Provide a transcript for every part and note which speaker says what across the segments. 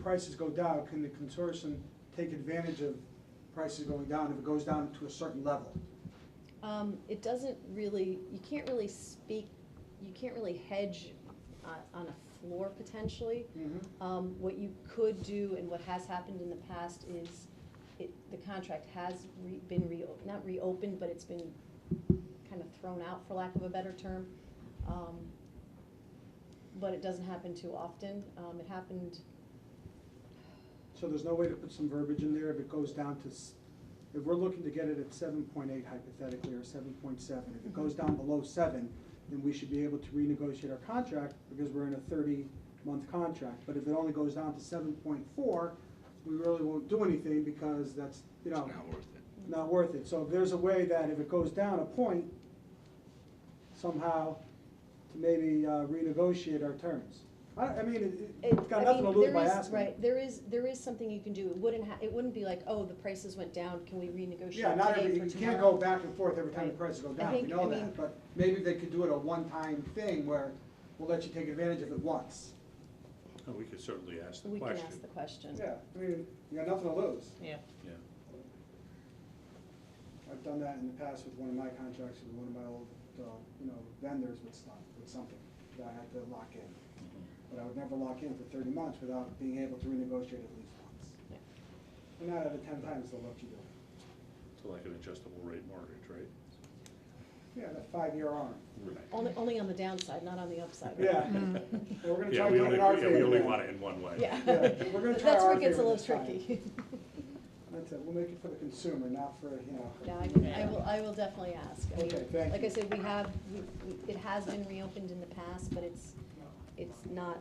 Speaker 1: prices go down, can the consortium take advantage of prices going down if it goes down to a certain level?
Speaker 2: Um, it doesn't really, you can't really speak, you can't really hedge on, on a floor potentially. Um, what you could do and what has happened in the past is it, the contract has re, been re, not reopened, but it's been kind of thrown out, for lack of a better term. Um, but it doesn't happen too often. Um, it happened,
Speaker 1: So there's no way to put some verbiage in there if it goes down to, s- if we're looking to get it at seven point eight hypothetically, or seven point seven, if it goes down below seven, then we should be able to renegotiate our contract, because we're in a thirty-month contract. But if it only goes down to seven point four, we really won't do anything, because that's, you know,
Speaker 3: Not worth it.
Speaker 1: not worth it. So if there's a way that if it goes down a point, somehow, to maybe uh, renegotiate our terms. I, I mean, it-
Speaker 2: It-
Speaker 1: it's got
Speaker 2: I
Speaker 1: nothing to
Speaker 2: mean,
Speaker 1: lose
Speaker 2: there
Speaker 1: by
Speaker 2: is-
Speaker 1: asking.
Speaker 2: Right, there is, there is something you can do, it wouldn't ha, it wouldn't be like, oh, the prices went down, can we renegotiate
Speaker 1: Yeah, not
Speaker 2: today
Speaker 1: every,
Speaker 2: for
Speaker 1: you can't
Speaker 2: tomorrow?
Speaker 1: go back and forth every time the
Speaker 2: Right.
Speaker 1: prices go
Speaker 2: I
Speaker 1: down, we
Speaker 2: think-
Speaker 1: know
Speaker 2: I mean-
Speaker 1: that, but maybe they could do it a one-time thing where we'll let you take advantage of it once.
Speaker 4: No, We could certainly ask the
Speaker 2: We can
Speaker 4: question.
Speaker 2: ask the question.
Speaker 1: Yeah, I mean, you got nothing to lose.
Speaker 5: Yeah.
Speaker 4: Yeah.
Speaker 1: I've done that in the past with one of my contracts with one of my old, uh, you know, vendors with stuff, with something that I had to lock in.
Speaker 4: mm-hmm.
Speaker 1: But I would never lock in for thirty months without being able to renegotiate at least once.
Speaker 2: Yeah.
Speaker 1: And nine out of ten times they'll let you do it.
Speaker 4: It's like an adjustable rate mortgage, right?
Speaker 1: Yeah, that five-year arm.
Speaker 4: Right.
Speaker 2: Only, only on the downside, not on the upside. right?
Speaker 1: Yeah. Well, We're gonna
Speaker 4: Yeah,
Speaker 1: try
Speaker 4: we
Speaker 1: to do it
Speaker 4: only,
Speaker 1: in our
Speaker 4: yeah, we only
Speaker 1: favor.
Speaker 4: want it in one way.
Speaker 2: Yeah.
Speaker 1: Yeah, we're gonna try
Speaker 2: That's
Speaker 1: our
Speaker 2: where it
Speaker 1: favorite
Speaker 2: gets a little
Speaker 1: this time.
Speaker 2: tricky.
Speaker 1: That's it, we'll make it for the consumer, not for, you know.
Speaker 2: Yeah, I can, I will, I will definitely ask. I mean,
Speaker 1: Okay, thank
Speaker 2: Like
Speaker 1: you.
Speaker 2: I said, we have, we, we- it has been reopened in the past, but it's, it's not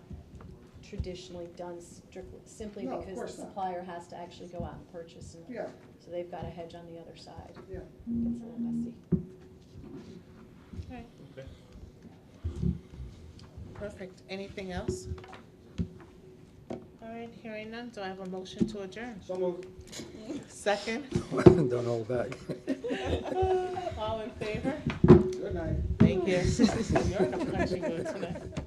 Speaker 2: traditionally done strictly, simply
Speaker 1: No, of
Speaker 2: because the
Speaker 1: course not.
Speaker 2: supplier has to actually go out and purchase and
Speaker 1: Yeah.
Speaker 2: so they've got a hedge on the other side.
Speaker 1: Yeah,
Speaker 2: Gets a little messy.
Speaker 5: All right,
Speaker 4: Okay.
Speaker 5: perfect. Anything else? All right, hearing none, do I have a motion to adjourn?
Speaker 1: so moved.
Speaker 5: Second?
Speaker 6: Don't hold back.
Speaker 5: All in favor?
Speaker 1: Good night.
Speaker 5: Thank you. You're in a country mood tonight.